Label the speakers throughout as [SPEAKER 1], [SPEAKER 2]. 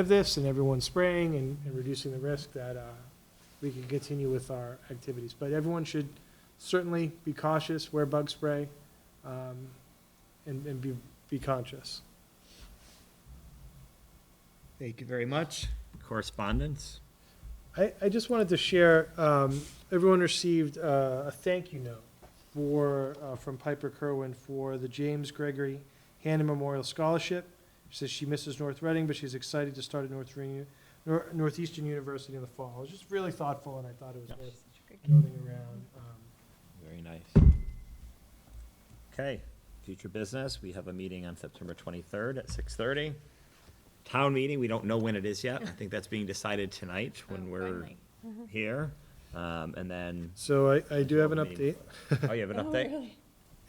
[SPEAKER 1] of this and everyone spraying and, and reducing the risk that, uh, we can continue with our activities. But everyone should certainly be cautious, wear bug spray, um, and, and be, be conscious.
[SPEAKER 2] Thank you very much. Correspondence?
[SPEAKER 1] I, I just wanted to share, um, everyone received uh, a thank you note for, uh, from Piper Kerwin for the James Gregory Hannah Memorial Scholarship. She says she misses North Reading, but she's excited to start at North Reading, Nor- Northeastern University in the fall. It was just really thoughtful, and I thought it was worth noting around. Um,
[SPEAKER 2] Very nice. Okay, future business, we have a meeting on September 23rd at 6:30. Town meeting, we don't know when it is yet. I think that's being decided tonight
[SPEAKER 3] Oh,
[SPEAKER 2] when we're here. Um, And then,
[SPEAKER 1] So I, I do have an update.
[SPEAKER 2] oh, you have an update?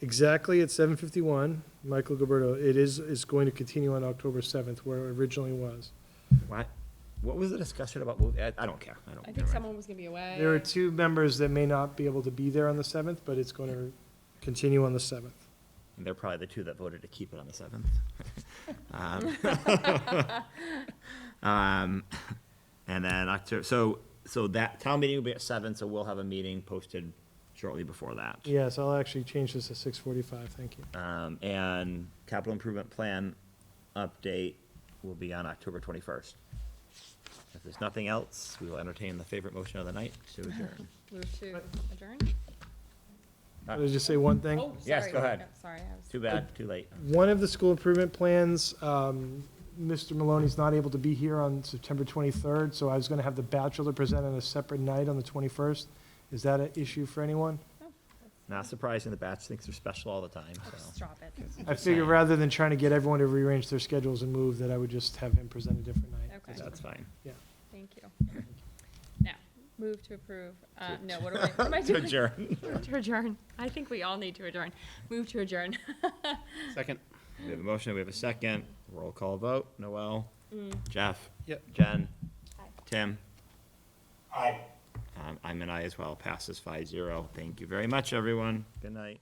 [SPEAKER 1] Exactly at seven fifty-one, Michael Gilberto, it is, is going to continue on October seventh, where it originally was.
[SPEAKER 2] What, what was the discussion about? mov- I I don't care, I don't. never
[SPEAKER 3] I think
[SPEAKER 2] mind.
[SPEAKER 3] someone was gonna be away.
[SPEAKER 1] There are two members that may not be able to be there on the seventh, but it's going to continue on the seventh.
[SPEAKER 2] And they're probably the two that voted to keep it on the seventh. um, um, and then October, so so that town meeting will be at seven, so we'll have a meeting posted shortly before that.
[SPEAKER 1] Yes, I'll actually change this to six forty-five, thank you.
[SPEAKER 2] Um, and capital improvement plan update will be on October twenty-first. If there's nothing else, we will entertain the favorite motion of the night to adjourn.
[SPEAKER 3] Move to adjourn?
[SPEAKER 2] Uh,
[SPEAKER 1] Did I just say one thing?
[SPEAKER 3] Oh,
[SPEAKER 2] Yes,
[SPEAKER 3] sorry.
[SPEAKER 2] go ahead.
[SPEAKER 3] Oh, Sorry, I was.
[SPEAKER 2] Too bad, too late.
[SPEAKER 1] One of the school improvement plans, um, Mr. Maloney's not able to be here on September 23rd, so I was going to have the bachelor present on a separate night on the 21st. Is that an issue for anyone?
[SPEAKER 2] Not surprising, the batch thinks they're special all the time,
[SPEAKER 3] Oh,
[SPEAKER 2] so.
[SPEAKER 3] Stop it.
[SPEAKER 1] I figured rather than trying to get everyone to rearrange their schedules and move, that I would just have him present a different night.
[SPEAKER 3] Okay.
[SPEAKER 2] That's fine.
[SPEAKER 3] Thank you. Now, move to approve, uh, no, what am I, what am I
[SPEAKER 2] To
[SPEAKER 3] doing?
[SPEAKER 2] adjourn.
[SPEAKER 3] To adjourn. I think we all need to adjourn. Move to adjourn.
[SPEAKER 4] Second.
[SPEAKER 2] We have a motion, we have a second, roll call vote, Noel, Jeff.
[SPEAKER 4] Yep.
[SPEAKER 2] Jen.
[SPEAKER 3] Aye.
[SPEAKER 2] Tim. Aye. Um, I'm an aye as well, passes five zero, thank you very much, everyone, good night.